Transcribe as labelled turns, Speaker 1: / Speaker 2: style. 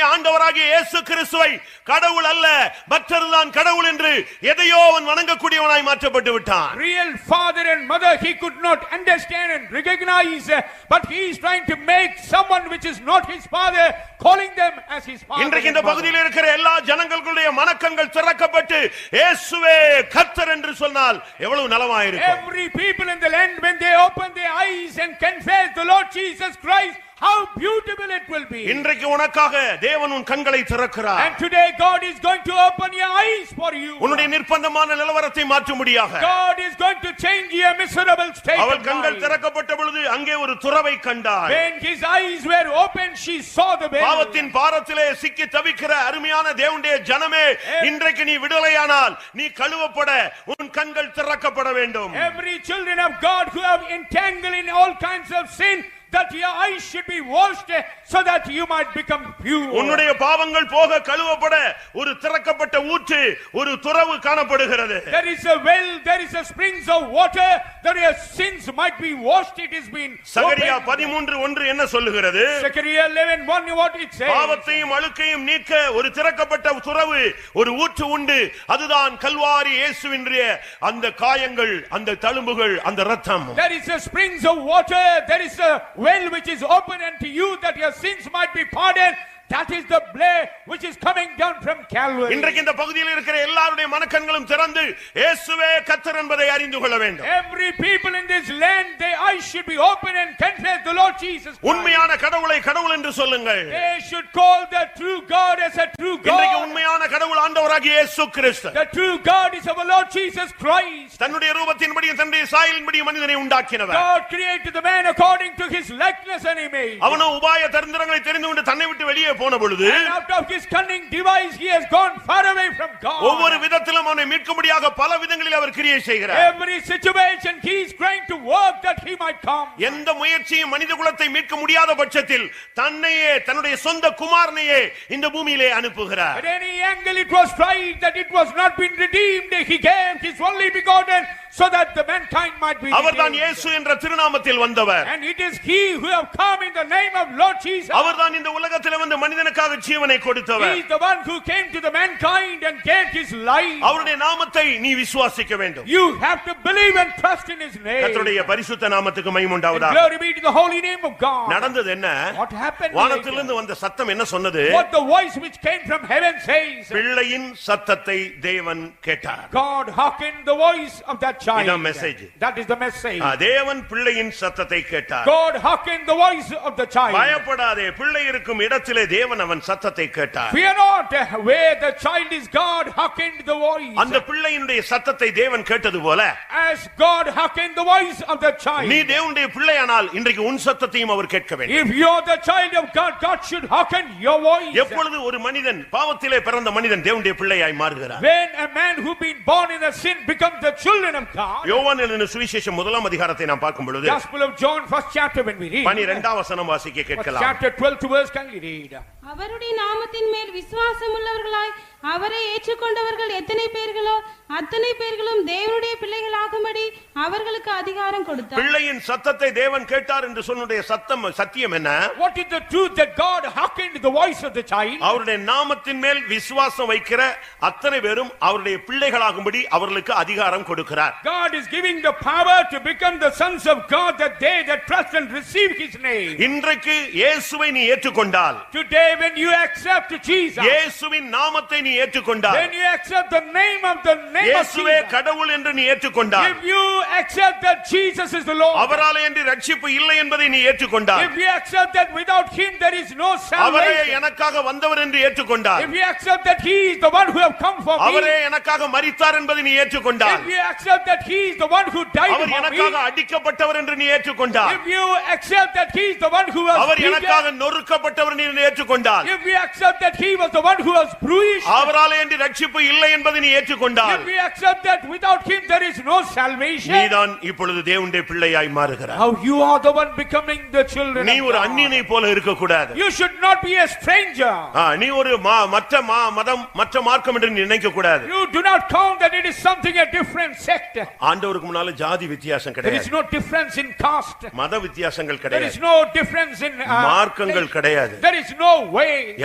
Speaker 1: கர்த்தராகிய இயேசு கிறிஸ்துவை கடவுள் அல்ல மற்றதுதான் கடவுள் என்று எதையோ அவன் வணங்கக்கூடியவனாய் மாற்றப்பட்டு விட்டான்
Speaker 2: Real father and mother he could not understand and recognize, uh, but he is trying to make someone which is not his father, calling them as his father.
Speaker 1: இன்றைக்கு இந்த
Speaker 2: and mother.
Speaker 1: பகுதியில் இருக்கிற எல்லா ஜனங்களுடைய மனக்கண்கள் திறக்கப்பட்டு இயேசுவே கர்த்தர் என்று சொன்னால் எவ்வளவு நலமாயிருக்கும்
Speaker 2: Every people in the land, when they open their eyes and confess the Lord Jesus Christ, how beautiful it will be.
Speaker 1: இன்றைக்கு உனக்காக தேவன் உன் கண்களை திறக்கிறார்
Speaker 2: And today God is going to open your eyes for you.
Speaker 1: உன்னுடைய நிர்பந்தமான நிலவரத்தை மாற்றும்படியாக
Speaker 2: God is going to change your miserable state
Speaker 1: அவள்
Speaker 2: of
Speaker 1: கண்கள்
Speaker 2: mind.
Speaker 1: திறக்கப்பட்ட பொழுது அங்கே ஒரு துறவை கண்டாள்
Speaker 2: When his eyes were open, she saw the baby.
Speaker 1: பாவத்தின் பாரத்திலே சிக்கி தவிக்கிற அருமையான தேவனுடைய ஜனமே இன்றைக்கு நீ விடுதலையானால் நீ கழுவப்பட உன் கண்கள் திறக்கப்பட வேண்டும்
Speaker 2: Every children of God who have entangled in all kinds of sin, that your eyes should be washed eh, so that you might become pure.
Speaker 1: உன்னுடைய பாவங்கள் போக கழுவப்பட ஒரு திறக்கப்பட்ட ஊற்று ஒரு துறவு காணப்படுகிறது
Speaker 2: There is a well, there is a springs of water, that your sins might be washed, it has been
Speaker 1: Zechariah
Speaker 2: opened.
Speaker 1: பதிமூன்று ஒன்று என்ன சொல்லுகிறது
Speaker 2: Zechariah eleven one, what it says.
Speaker 1: பாவத்தையும் அழுக்கையும் நீக்க ஒரு திறக்கப்பட்ட துறவு ஒரு ஊற்று உண்டு அதுதான் கல்வாரி இயேசுவின்றிய அந்த காயங்கள் அந்த தழும்புகள் அந்த ரத்தம்
Speaker 2: There is a springs of water, there is a well which is open unto you that your sins might be pardoned. That is the blood which is coming down from Calvary.
Speaker 1: இன்றைக்கு இந்த பகுதியில் இருக்கிற எல்லாருடைய மனக்கண்களும் திறந்து இயேசுவே கர்த்தர் என்பதை அறிந்து கொள்ள வேண்டும்
Speaker 2: Every people in this land, their eyes should be open and confess the Lord Jesus Christ.
Speaker 1: உண்மையான கடவுளை கடவுள் என்று சொல்லுங்கள்
Speaker 2: They should call the true God as a true
Speaker 1: இன்றைக்கு
Speaker 2: God.
Speaker 1: உண்மையான கடவுள் ஆண்டவராகிய இயேசு கிறிஸ்து
Speaker 2: The true God is our Lord Jesus Christ.
Speaker 1: தன்னுடைய ரூபத்தின்படியும் தன்னுடைய சாயலின்படியும் மனிதனை உண்டாக்கினவர்
Speaker 2: God created the man according to his likeness and image.
Speaker 1: அவனோ உபாய தந்திரங்களை தெரிந்து கொண்டு தன்னை விட்டு வெளியே போன பொழுது
Speaker 2: And out of his cunning device, he has gone far away from
Speaker 1: ஒவ்வொரு
Speaker 2: God.
Speaker 1: விதத்திலும் அவனை மீட்கும்படியாக பல விதங்களில் அவர் கிரியை செய்கிறார்
Speaker 2: Every situation, he is trying to work that he might come.
Speaker 1: எந்த முயற்சியும் மனித குலத்தை மீட்க முடியாத பட்சத்தில் தன்னையே தன்னுடைய சொந்த குமாரனையே இந்த பூமியிலே
Speaker 2: At
Speaker 1: அனுப்புகிறார்
Speaker 2: any angle, it was tried that it was not been redeemed. He gave his only begotten so that the mankind might be
Speaker 1: அவர்தான்
Speaker 2: redeemed.
Speaker 1: இயேசு என்ற திருநாமத்தில் வந்தவர்
Speaker 2: And it is he who have come in the name of Lord Jesus.
Speaker 1: அவர்தான் இந்த உலகத்திலே வந்து மனிதனுக்காக ஜீவனை
Speaker 2: He
Speaker 1: கொடுத்தவர்
Speaker 2: is the one who came to the mankind and gave his life.
Speaker 1: அவருடைய நாமத்தை நீ விசுவாசிக்க வேண்டும்
Speaker 2: You have to believe and trust in his name. And
Speaker 1: கர்த்தருடைய பரிசுத்த நாமத்துக்கு மகிமை உண்டாவதாக
Speaker 2: glory be to the holy name of God.
Speaker 1: நடந்தது என்ன
Speaker 2: What happened? later?
Speaker 1: வானத்திலிருந்து வந்த சத்தம் என்ன சொன்னது
Speaker 2: What the voice which came from heaven says.
Speaker 1: பிள்ளையின் சத்தத்தை தேவன் கேட்டார்
Speaker 2: God hearkened the voice of that child.
Speaker 1: இதான் message.
Speaker 2: That is the message.
Speaker 1: ஆ, தேவன் பிள்ளையின் சத்தத்தை கேட்டார்
Speaker 2: God hearkened the voice of the child.
Speaker 1: பயப்படாதே பிள்ளை இருக்கும் இடத்திலே தேவன் அவன் சத்தத்தை கேட்டார்
Speaker 2: Fear not, eh, where the child is, God hearkened the voice.
Speaker 1: அந்த பிள்ளையினுடைய சத்தத்தை தேவன் கேட்டது போல
Speaker 2: As God hearkened the voice of the
Speaker 1: நீ
Speaker 2: child.
Speaker 1: தேவனுடைய பிள்ளையானால் இன்றைக்கு உன் சத்தத்தையும் அவர் கேட்க வேண்டும்
Speaker 2: If you're the child of God, God should hearken your voice.
Speaker 1: எப்பொழுது ஒரு மனிதன் பாவத்திலே பிறந்த மனிதன் தேவனுடைய பிள்ளையாய் மாறுகிறார்
Speaker 2: When a man who been born in a sin becomes the children of God.
Speaker 1: யோவான் எழுதின சுவிசேஷம் முதலாம் அதிகாரத்தை நாம் பார்க்கும் பொழுது
Speaker 2: Gospel of John, first chapter when we read.
Speaker 1: பனிரெண்டாம் வசனம் வாசிக்க
Speaker 2: First
Speaker 1: கேட்கலாம்
Speaker 2: chapter twelve to verse can we read?
Speaker 3: அவருடைய நாமத்தின் மேல் விசுவாசமுள்ளவர்களாய் அவரை ஏற்றுக்கொண்டவர்கள் எத்தனை பேர்களோ அத்தனை பேர்களும் தேவனுடைய பிள்ளைகளாகும்படி அவர்களுக்கு அதிகாரம் கொடுத்தார்
Speaker 1: பிள்ளையின் சத்தத்தை தேவன் கேட்டார் என்று சொன்னுடைய சத்தம் சத்தியம் என்ன
Speaker 2: What is the truth that God hearkened the voice of the child?
Speaker 1: அவருடைய நாமத்தின் மேல் விசுவாசம் வைக்கிற அத்தனை பேரும் அவருடைய பிள்ளைகளாகும்படி அவர்களுக்கு அதிகாரம் கொடுக்கிறார்
Speaker 2: God is giving the power to become the sons of God that they that trust and receive his name.
Speaker 1: இன்றைக்கு இயேசுவை நீ ஏற்றுக்கொண்டால்
Speaker 2: Today when you accept Jesus,
Speaker 1: இயேசுவின் நாமத்தை நீ ஏற்றுக்கொண்டால்
Speaker 2: when you accept the name of the name of
Speaker 1: இயேசுவே
Speaker 2: Jesus,
Speaker 1: கடவுள் என்று நீ ஏற்றுக்கொண்டால்
Speaker 2: if you accept that Jesus is the Lord,
Speaker 1: அவராலே என்று ரட்சிப்பு இல்லை என்பதை நீ ஏற்றுக்கொண்டால்
Speaker 2: if you accept that without him there is no
Speaker 1: அவரே
Speaker 2: salvation,
Speaker 1: எனக்காக வந்தவர் என்று ஏற்றுக்கொண்டார்
Speaker 2: If you accept that he is the one who have come for
Speaker 1: அவரே
Speaker 2: me,
Speaker 1: எனக்காக மரித்தார் என்பதை நீ ஏற்றுக்கொண்டார்
Speaker 2: if you accept that he is the one who died
Speaker 1: our
Speaker 2: for
Speaker 1: எனக்காக
Speaker 2: me,
Speaker 1: அடிக்கப்பட்டவர் என்று நீ ஏற்றுக்கொண்டார்
Speaker 2: if you accept that he is the one who was
Speaker 1: our
Speaker 2: beaten,
Speaker 1: எனக்காக நொறுக்கப்பட்டவர் என்று நீ ஏற்றுக்கொண்டார்
Speaker 2: if you accept that he was the one who was bruised,
Speaker 1: அவராலே என்று ரட்சிப்பு இல்லை என்பதை நீ ஏற்றுக்கொண்டார்
Speaker 2: if you accept that without him there is no salvation,
Speaker 1: நீதான் இப்பொழுது தேவனுடைய பிள்ளையாய் மாறுகிறாய்
Speaker 2: now you are the one becoming the children
Speaker 1: நீ
Speaker 2: of
Speaker 1: ஒரு
Speaker 2: God.
Speaker 1: அந்நியனை போல இருக்கக்கூடாது
Speaker 2: You should not be a stranger.
Speaker 1: ஆ, நீ ஒரு மா- மற்ற மா- மதம் மற்ற மார்க்கம் என்று நினைக்க கூடாது
Speaker 2: You do not count that it is something a different sect.
Speaker 1: ஆண்டவருக்கு முன்னால ஜாதி வித்தியாசம்
Speaker 2: There is
Speaker 1: கிடையாது
Speaker 2: no difference in caste.
Speaker 1: மத வித்தியாசங்கள்
Speaker 2: There is
Speaker 1: கிடையாது
Speaker 2: no difference in uh,
Speaker 1: மார்க்கங்கள் கிடையாது
Speaker 2: There is no way.